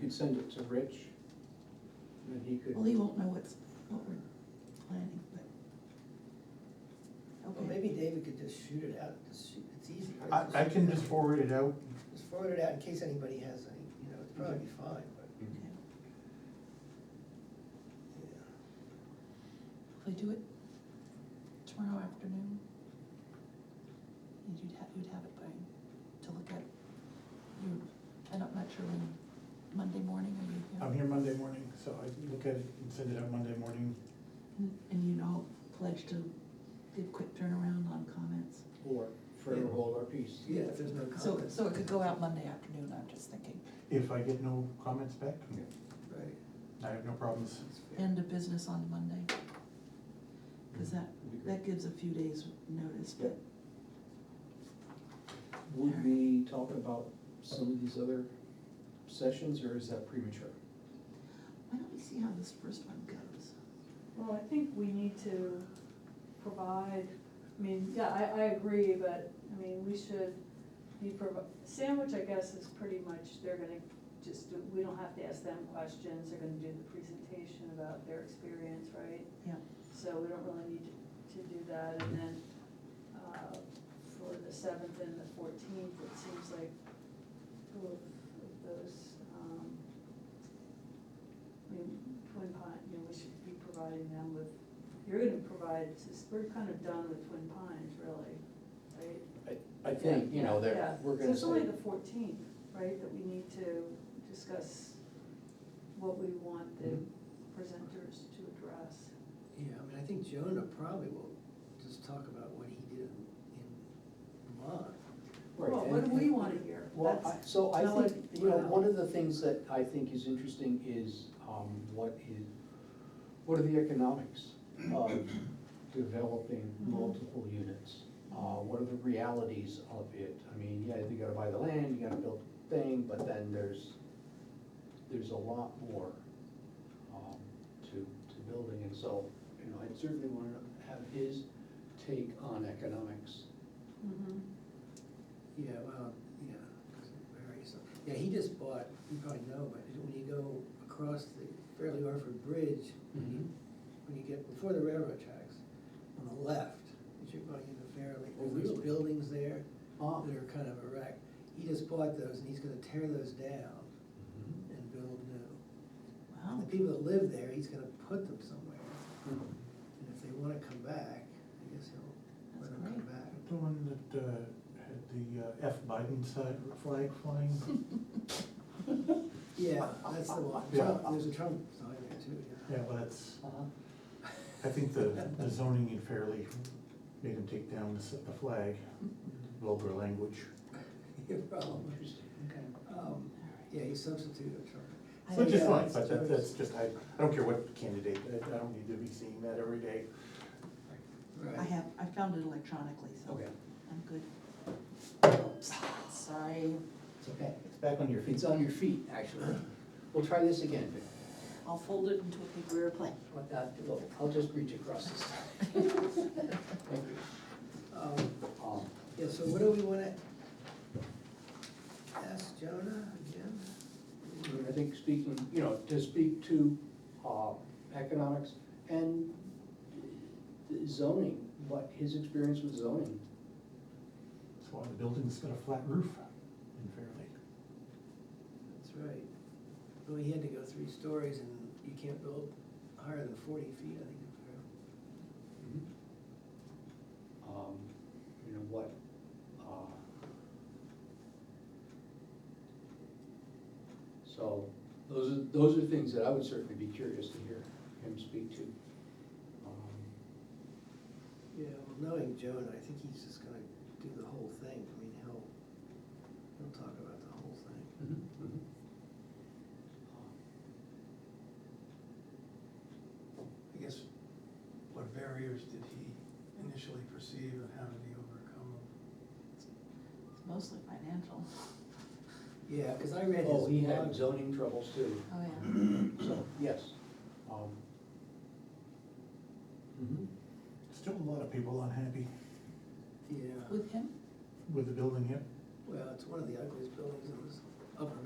could send it to Rich, and he could. Well, he won't know what's, what we're planning, Well, but. Okay, maybe David could just shoot it out, just shoot, it's easy. right? I, I can shoot just it out. forward it out. Just forward it out in case anybody has any, you know, it'd probably be fine, but, okay. yeah. Could I do it tomorrow afternoon? And You'd have, you'd have it by, to look at, you, and I'm not sure when, Monday morning, are you here? I'm here Monday morning, so I can look at it and send it out Monday morning. And- And you know, pledge to give quick turnaround on comments. Or forever hold our peace. Yeah, if there's no So, comments. so it could go out Monday afternoon, I'm just thinking, If I get no comments back, Right. I have no problems. that's fair. end of business on Monday. Cause that, Be great. that gives a few days notice, but Would we talk about some of these other sessions, or is that premature? why don't we see how this first one goes? Well, I think we need to provide, I mean, yeah, I, I agree, but, I mean, we should be provi- sandwich, I guess, is pretty much, they're gonna just, do- we don't have to ask them questions, they're gonna do the presentation about their experience, right? Yeah. So we don't really need to do that, and then, uh, for the seventh and the fourteenth, it seems like two of of those, um, I mean, Twin Pine, you know, we should be providing them with, you're gonna provide, s- we're kind of done with Twin Pines, really, right? I, I think, you know, Yeah. that we're So gonna it's only say, the fourteenth, right, that we need to discuss what we want the Mm-hmm. presenters to address. Yeah, I mean, I think Jonah probably will just talk about what he did in in Vermont. right, Well, and- what do we and- wanna hear? Well, That's- I- so I that's what- think, you know, one of the things that I think is interesting is, um, what is, what are the economics of developing Mhm. multiple units? Uh, what are the realities of it? I mean, yeah, you gotta buy the land, you gotta build the thing, but then there's, there's a lot more, um, to, to building, and so, you know, I'd certainly wanna have his take on economics. Mhm. Yeah, well, yeah, 'cause it varies. Yeah, he just bought, you probably know, but when you go across the Fairleigh Orford Bridge, when you, when you get before the railroad tracks, on the left, as you're going into Fairleigh, Oh, there's those really? buildings there Ah. that are kind of a wreck. He just bought those and he's gonna tear those down and build new. Wow. And the people that live there, he's gonna put them somewhere. Mhm. And if they wanna come back, I guess he'll let That's them come great. back. The one that uh, had the uh, F Biden side flag flying, Yeah, that's the one. Yeah. There's a Trump sign there too, yeah. yeah, well, that's, Uh-huh. I think the the zoning in Fairleigh made him take down the s- the flag, vulgar language. Your problem. Interesting, okay. Um, Yeah, he substituted a Trump. I Which is think- fine, but that- that's just, I, I don't care what candidate, I I don't need to be seeing that every day. Right. I have, I found it electronically, so Okay. I'm good. Sorry, It's okay, it's back on your feet. It's on your feet, actually. We'll try this again. I'll fold it into a paper airplane. What that- look, I'll just reach across this. Thank Um, you. Um, Yeah, so what do we wanna ask Jonah again? I think speaking, you know, to speak to uh, economics and zoning, what his experience with zoning. That's why the building's got a flat roof in Fairleigh. That's right. Well, he had to go three stories and you can't build higher than forty feet, I think. Um, You know, what, uh, so, those are, those are things that I would certainly be curious to hear him speak to. Um, Yeah, well, knowing Jonah, I think he's just gonna do the whole thing. I mean, he'll, he'll talk about the whole thing. I guess, what barriers did he initially perceive and how did he overcome them? It's mostly financial. Yeah, cause I read his Oh, he had blog. zoning troubles too, Oh, yeah. so, yes. Um, mhm. Still a lot of people unhappy Yeah, With him? with the building here. well, it's one of the ugliest buildings in this upper